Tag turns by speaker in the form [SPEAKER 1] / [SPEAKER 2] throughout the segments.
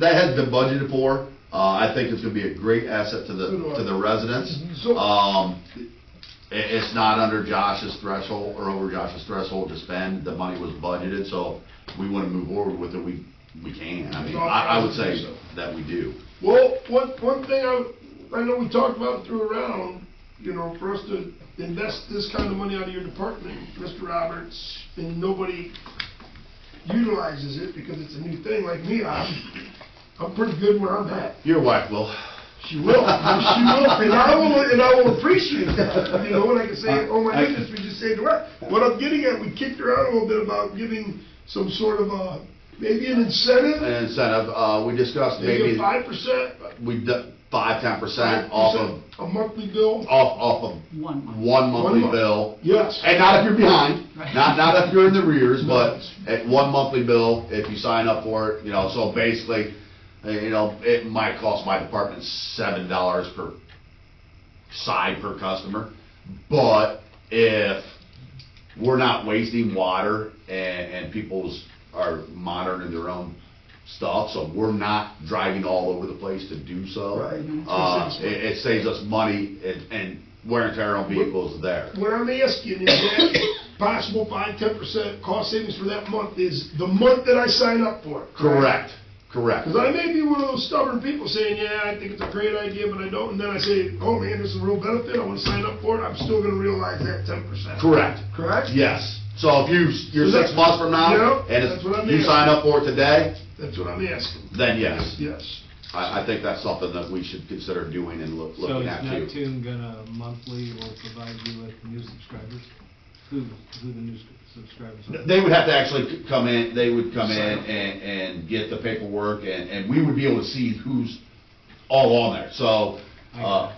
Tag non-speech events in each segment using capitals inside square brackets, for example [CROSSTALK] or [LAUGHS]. [SPEAKER 1] that has been budgeted for. Uh, I think it's gonna be a great asset to the, to the residents.
[SPEAKER 2] So-
[SPEAKER 1] Um, it, it's not under Josh's threshold or over Josh's threshold to spend. The money was budgeted, so we wanna move forward with it. We, we can. I mean, I, I would say that we do.
[SPEAKER 2] Well, one, one thing I, I know we talked about through around, you know, for us to invest this kind of money out of your department, Mr. Roberts, and nobody utilizes it because it's a new thing, like me, I'm, I'm pretty good where I'm at.
[SPEAKER 1] Your wife will.
[SPEAKER 2] She will, she will, and I will, and I will appreciate that, you know, and I can say, oh my goodness, we just saved her. life." What I'm getting at, we kicked her out a little bit about giving some sort of a, maybe an incentive,
[SPEAKER 1] And incentive, uh, we discussed
[SPEAKER 2] maybe a
[SPEAKER 1] maybe,
[SPEAKER 2] five percent,
[SPEAKER 1] we, d- five, ten percent off of,
[SPEAKER 2] A monthly bill?
[SPEAKER 1] off, off of
[SPEAKER 3] One [LAUGHS] month.
[SPEAKER 1] one monthly
[SPEAKER 2] month.
[SPEAKER 1] bill.
[SPEAKER 2] Yes.
[SPEAKER 1] And not if you're behind,
[SPEAKER 3] Right.
[SPEAKER 1] not, not if you're in the rears, but at one monthly bill, if you sign up for it, you know, so basically, uh, you know, it might cost my department seven dollars per side per customer, but if we're not wasting water and, and people's are monitoring their own stuff, so we're not driving all over the place to do so.
[SPEAKER 2] Right.
[SPEAKER 1] Uh, it, it saves us money and, and wear and tear on vehicles there.
[SPEAKER 2] What I'm asking is that possible five, ten percent cost savings for that month is the month that I sign up for it.
[SPEAKER 1] Correct, correct.
[SPEAKER 2] Because I may be one of those stubborn people saying, yeah, I think it's a great idea, but I don't, and then I say, oh man, this is a real benefit, I want to sign up for it, I'm still gonna realize that ten percent.
[SPEAKER 1] Correct,
[SPEAKER 2] Correct?
[SPEAKER 1] yes. So if you, you're six months from now,
[SPEAKER 2] Yep,
[SPEAKER 1] and
[SPEAKER 2] that's what I
[SPEAKER 1] it's-
[SPEAKER 2] mean.
[SPEAKER 1] you sign up for it today,
[SPEAKER 2] That's what I'm asking,
[SPEAKER 1] then yes.
[SPEAKER 2] yes.
[SPEAKER 1] I, I think that's something that we should consider doing and look-
[SPEAKER 4] So
[SPEAKER 1] looking
[SPEAKER 4] is
[SPEAKER 1] at too.
[SPEAKER 4] Neptune gonna monthly or provide you with new subscribers? Who, who the new sc- subscribers are?
[SPEAKER 1] They would have to actually come in, they would come in and, and get the paperwork, and, and we would be able to see who's all on there. So, uh,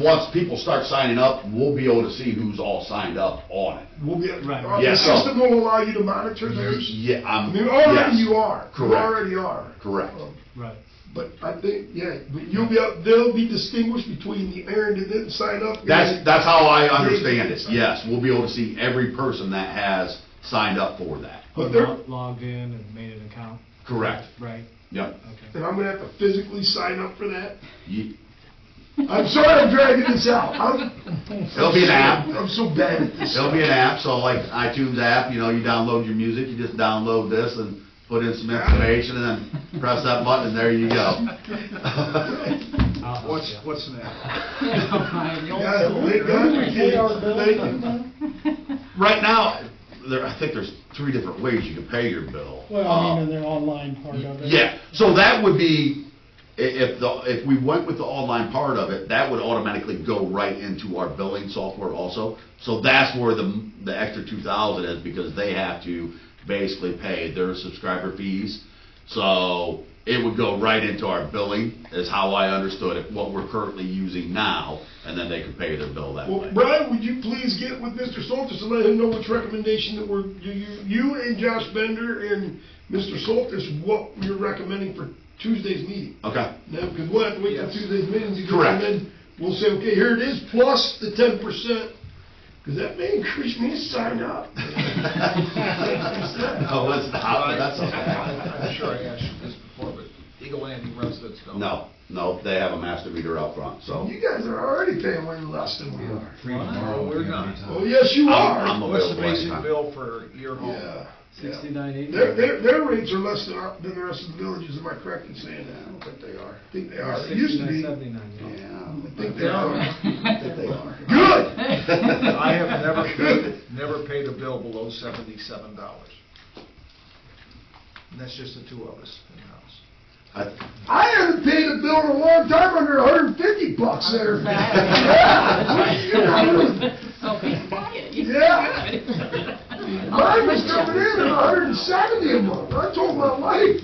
[SPEAKER 1] once people start signing up, we'll be able to see who's all signed up on it.
[SPEAKER 2] We'll be,
[SPEAKER 4] Right.
[SPEAKER 2] the
[SPEAKER 1] Yes, so-
[SPEAKER 2] system will allow you to monitor theirs,
[SPEAKER 1] Yeah,
[SPEAKER 2] I
[SPEAKER 1] I'm,
[SPEAKER 2] mean, already
[SPEAKER 1] yes.
[SPEAKER 2] you are, you
[SPEAKER 1] Correct.
[SPEAKER 2] already are.
[SPEAKER 1] Correct.
[SPEAKER 2] Um,
[SPEAKER 4] Right.
[SPEAKER 2] But I think, yeah, but you'll be, up- they'll be distinguished between the Aaron that didn't sign up. and-
[SPEAKER 1] That's, that's how I understand it, yes. We'll be able to see every person that has signed up for that.
[SPEAKER 2] But
[SPEAKER 4] Who
[SPEAKER 2] they're-
[SPEAKER 4] lo- Logged in and made an account,
[SPEAKER 1] Correct.
[SPEAKER 4] right?
[SPEAKER 1] Yep.
[SPEAKER 4] Okay.
[SPEAKER 2] And I'm gonna have to physically sign up for that.
[SPEAKER 1] You-
[SPEAKER 2] I'm sorry I'm dragging this out. I'm,
[SPEAKER 1] It'll be an app.
[SPEAKER 2] I'm so bad at this.
[SPEAKER 1] It'll be an app, so like iTunes app, you know, you download your music, you just download this and put in some information and then press that button and there you
[SPEAKER 5] [LAUGHS]
[SPEAKER 1] go.
[SPEAKER 4] I'll help
[SPEAKER 6] What's,
[SPEAKER 4] ya.
[SPEAKER 6] what's next?
[SPEAKER 3] Brian, you're
[SPEAKER 2] Yeah,
[SPEAKER 3] old.
[SPEAKER 2] thank God we did. Thank you.
[SPEAKER 1] Right now, there, I think there's three different ways you can pay your bill.
[SPEAKER 5] Well, I mean,
[SPEAKER 1] Uh,
[SPEAKER 5] in their online part of it.
[SPEAKER 1] Yeah, so that would be, i- if the, if we went with the online part of it, that would automatically go right into our billing software also. So that's where the, m- the extra two thousand is, because they have to basically pay their subscriber fees. So it would go right into our billing, is how I understood it, what we're currently using now, and then they could pay their bill that
[SPEAKER 2] Well,
[SPEAKER 1] way.
[SPEAKER 2] Brian, would you please get with Mr. Soltis and let him know which recommendation that we're, you, you, you and Josh Bender and Mr. Soltis, what you're recommending for Tuesday's meeting?
[SPEAKER 1] Okay,
[SPEAKER 2] No, because we'll have to wait till
[SPEAKER 6] Yes.
[SPEAKER 2] Tuesday's meeting to do it,
[SPEAKER 1] Correct.
[SPEAKER 2] and then we'll say, okay, here it is, plus the ten percent, because that may increase me to sign
[SPEAKER 1] [LAUGHS]
[SPEAKER 2] up.
[SPEAKER 1] [LAUGHS]
[SPEAKER 2] [LAUGHS]
[SPEAKER 1] no, it's not, that's okay.
[SPEAKER 6] I'm
[SPEAKER 1] [LAUGHS]
[SPEAKER 6] sure I asked you this before, but Eagle Land residents don't.
[SPEAKER 1] No, no, they have a master meter out front, so.
[SPEAKER 2] You guys are already paying way less than we are.
[SPEAKER 6] No, we're not.
[SPEAKER 2] Oh, yes, you
[SPEAKER 1] I'm- I'm
[SPEAKER 2] are.
[SPEAKER 6] What's the
[SPEAKER 1] available anytime.
[SPEAKER 6] basic bill for your home?
[SPEAKER 2] Yeah. yeah.
[SPEAKER 3] Sixty-nine eighty.
[SPEAKER 2] Their, their, their rates are less than, our- than the rest of the villages, am I correct in saying that? I don't think they are. I think they are. It used to
[SPEAKER 4] Sixty-nine,
[SPEAKER 2] be.
[SPEAKER 4] seventy-nine, yeah.
[SPEAKER 1] Yeah,
[SPEAKER 2] I think they are.
[SPEAKER 1] that they are.
[SPEAKER 2] Good!
[SPEAKER 6] I have
[SPEAKER 1] [LAUGHS]
[SPEAKER 6] never, never paid a bill below seventy-seven dollars. And that's just the two of us in the house.
[SPEAKER 1] I-
[SPEAKER 2] I haven't paid a bill in a long time under hundred and fifty bucks there.
[SPEAKER 3] Okay, quiet.
[SPEAKER 2] Yeah. [LAUGHS] Mine was coming in at hundred and seventy a month. I told my wife,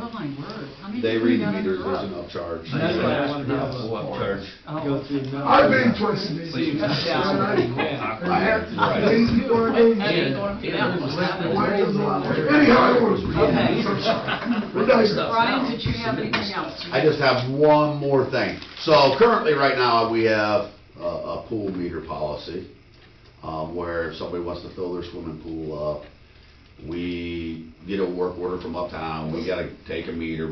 [SPEAKER 3] Oh, my word. How many
[SPEAKER 1] They
[SPEAKER 3] people
[SPEAKER 1] read
[SPEAKER 3] you
[SPEAKER 1] the
[SPEAKER 3] got in
[SPEAKER 1] meters,
[SPEAKER 3] the
[SPEAKER 1] there's an
[SPEAKER 3] club?
[SPEAKER 1] upcharge.
[SPEAKER 4] That's why I wanted to have a-
[SPEAKER 3] Oh.
[SPEAKER 4] go through. now.
[SPEAKER 2] I paid twice a day. I have to, lazy or
[SPEAKER 3] I
[SPEAKER 2] lazy.
[SPEAKER 3] didn't go up to that
[SPEAKER 2] My
[SPEAKER 3] one.
[SPEAKER 2] wife doesn't allow it. Anyhow, I was.
[SPEAKER 3] Okay.
[SPEAKER 2] We're nice
[SPEAKER 3] Brian, did you have anything else?
[SPEAKER 1] I just have one more thing. So currently, right now, we have a, a pool meter policy, um, where if somebody wants to fill their swimming pool up, we get a work order from uptown, we gotta take a meter,